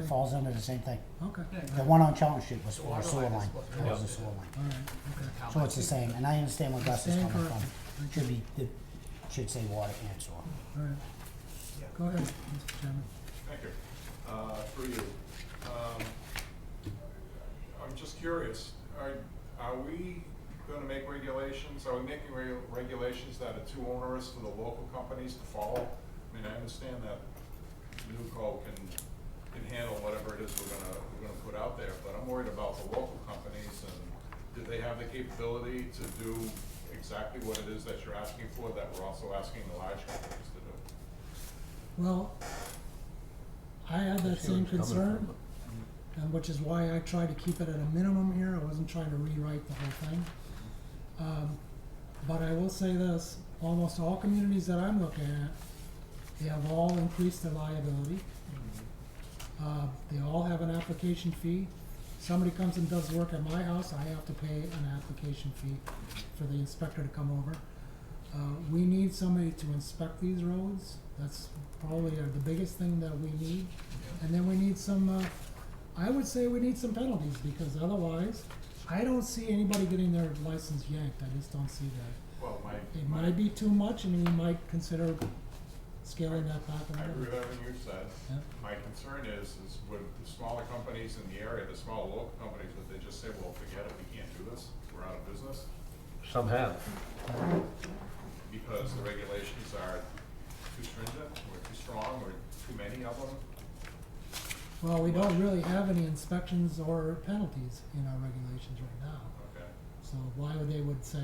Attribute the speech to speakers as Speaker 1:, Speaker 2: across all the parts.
Speaker 1: falls under the same thing.
Speaker 2: Okay,
Speaker 3: Yeah,
Speaker 1: The one on Challenge Street was
Speaker 3: Water
Speaker 1: a sewer
Speaker 3: line is
Speaker 1: line,
Speaker 3: what-
Speaker 1: it was a sewer line.
Speaker 2: all right, okay.
Speaker 1: So it's the same, and I understand where Gus is
Speaker 2: Stand
Speaker 1: coming
Speaker 2: corrected.
Speaker 1: from. Should be, it should say water and sewer.
Speaker 2: All right.
Speaker 3: Yeah.
Speaker 2: Go ahead, Mr. Chairman.
Speaker 4: Thank you. Uh, Through you. Um, I'm just curious, are, are we gonna make regulations, are we making regu- regulations that are too onerous for the local companies to follow? I mean, I understand that Newco can, can handle whatever it is we're gonna, we're gonna put out there, but I'm worried about the local companies and do they have the capability to do exactly what it is that you're asking for, that we're also asking the large companies to do?
Speaker 2: Well, I had that same concern, and which is why I tried to keep it at a minimum here, I wasn't trying to rewrite the whole thing. Um, but I will say this, almost all communities that I'm looking at, they have all increased their liability. Uh, they all have an application fee. Somebody comes and does work at my house, I have to pay an application fee for the inspector to come over. Uh, we need somebody to inspect these roads, that's probably uh, the biggest thing that we need. And then we need some, uh, I would say we need some penalties, because otherwise, I don't see anybody getting their license yanked, I just don't see that.
Speaker 4: Well, my.
Speaker 2: It
Speaker 4: my-
Speaker 2: might be too much, and we might consider scaling that back a
Speaker 4: I
Speaker 2: little
Speaker 4: agree
Speaker 2: bit.
Speaker 4: with everything you've said.
Speaker 2: Yeah.
Speaker 4: My concern is, is with the smaller companies in the area, the smaller local companies, would they just say, well, forget it, we can't do this, we're out of business?
Speaker 5: Some have.
Speaker 4: Because the regulations are too stringent, or too strong, or too many of them?
Speaker 2: Well, we don't really have any inspections or penalties in our regulations right now.
Speaker 4: Okay,
Speaker 2: So why would they would say,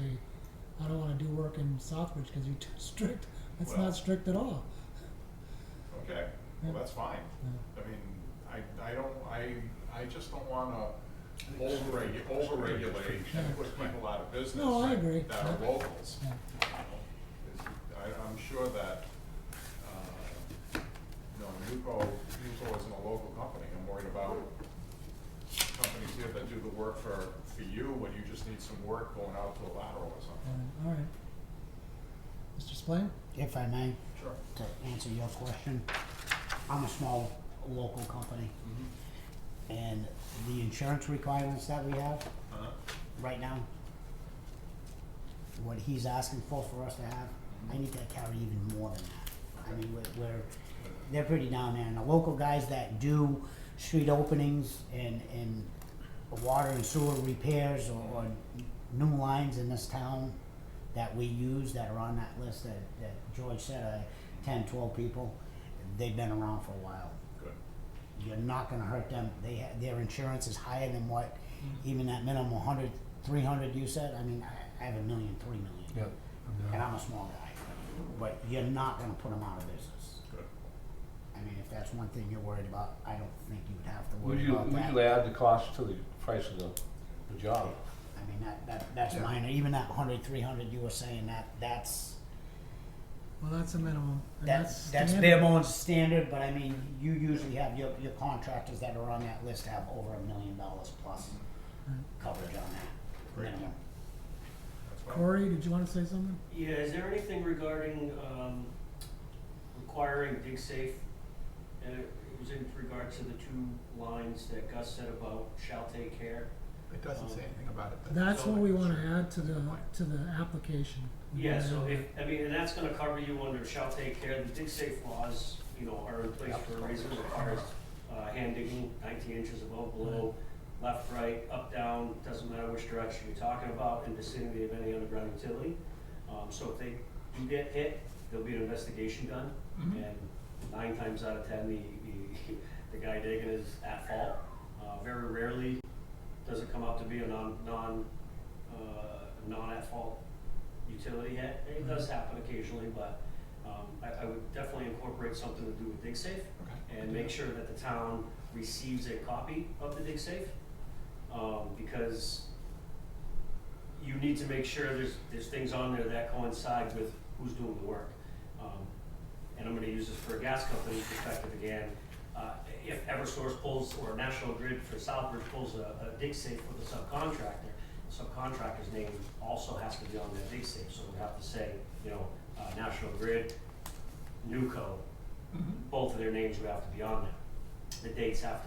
Speaker 2: I don't wanna do work in Southbridge because you're too strict? That's
Speaker 4: Well-
Speaker 2: not strict at all.
Speaker 4: okay, well,
Speaker 2: Yeah.
Speaker 4: that's fine.
Speaker 2: Yeah.
Speaker 4: I mean, I, I don't, I, I just don't wanna overregu- overregulate
Speaker 2: Yeah.
Speaker 4: and put people out of business.
Speaker 2: No, I
Speaker 4: that-
Speaker 2: agree.
Speaker 4: That are
Speaker 2: Yeah.
Speaker 4: locals.
Speaker 2: Yeah.
Speaker 4: is- I, I'm sure that, uh, you know, Nuco, Nuco isn't a local company, I'm worried about companies here that do the work for, for you, when you just need some work going out to a lateral or something.
Speaker 2: Alright, alright. Mr. Splain?
Speaker 1: If I may,
Speaker 4: Sure.
Speaker 1: to answer your question, I'm a small local company, and the insurance requirements that we have
Speaker 4: Uh-huh,
Speaker 1: right now, what he's asking for for us to have, I need to carry even more than that. I mean, we're, we're, they're pretty down there, and the local guys that do street openings and, and water and sewer repairs or, or new lines in this town that we use that are on that list that, that George said, uh, ten, twelve people, they've been around for a while
Speaker 4: good.
Speaker 1: you're not gonna hurt them. They ha- their insurance is higher than what even that minimum 100, 300 you said. I mean, I, I have a million, three million,
Speaker 5: Yeah.
Speaker 1: and I'm a small guy, but you're not gonna put them out of business.
Speaker 4: Good.
Speaker 1: I mean, if that's one thing you're worried about, I don't think you would have to
Speaker 5: Would
Speaker 1: worry
Speaker 5: you,
Speaker 1: about
Speaker 5: would
Speaker 1: that.
Speaker 5: you add the cost to the price of the, the job?
Speaker 1: I mean, that, that that's minor. Even that 100, 300 you were saying that that's
Speaker 2: Well, that's a minimum. and
Speaker 1: that's that's
Speaker 2: standard.
Speaker 1: bare bones standard. But I mean, you usually have your your contractors that are on that list have over a million dollars plus
Speaker 2: Right.
Speaker 1: coverage on that
Speaker 4: Great.
Speaker 1: minimum.
Speaker 4: That's fine.
Speaker 2: Corey, did you wanna say something?
Speaker 6: Yeah, is there anything regarding um, requiring dig safe? Uh, It was in regard to the two lines that Gus said about shall take care.
Speaker 3: It doesn't say anything about it. but-
Speaker 2: That's what we wanna
Speaker 3: Sure.
Speaker 2: add to the, to the application. We
Speaker 6: Yeah,
Speaker 2: wanna
Speaker 6: so
Speaker 2: add-
Speaker 6: if, I mean, and that's gonna cover you under shall take care. The dig safe laws, you know, are in place for a reason. It Requires uh, hand digging nineteen inches above, below, left, right, up, down, doesn't matter which direction you're talking about, in vicinity of any underground utility. Um, So if they do get hit, there'll be an investigation done, and nine times out of ten, the, the, the guy digging is at fault. Uh, Very rarely does it come out to be a non, non, uh, non at fault utility hit. It does happen occasionally, but um, I, I would definitely incorporate something to do with dig safe
Speaker 3: Okay.
Speaker 6: and make sure that the town receives a copy of the dig safe. Um, because you need to make sure there's, there's things on there that coincide with who's doing the work. Um, and I'm gonna use this for a gas company's perspective again. Uh, if Eversource pulls, or National Grid for Southbridge pulls a, a dig safe for the subcontractor, subcontractor's name also has to be on that dig safe, so we have to say, you know, uh, National Grid, Newco, both of their names would have to be on there. The dates have to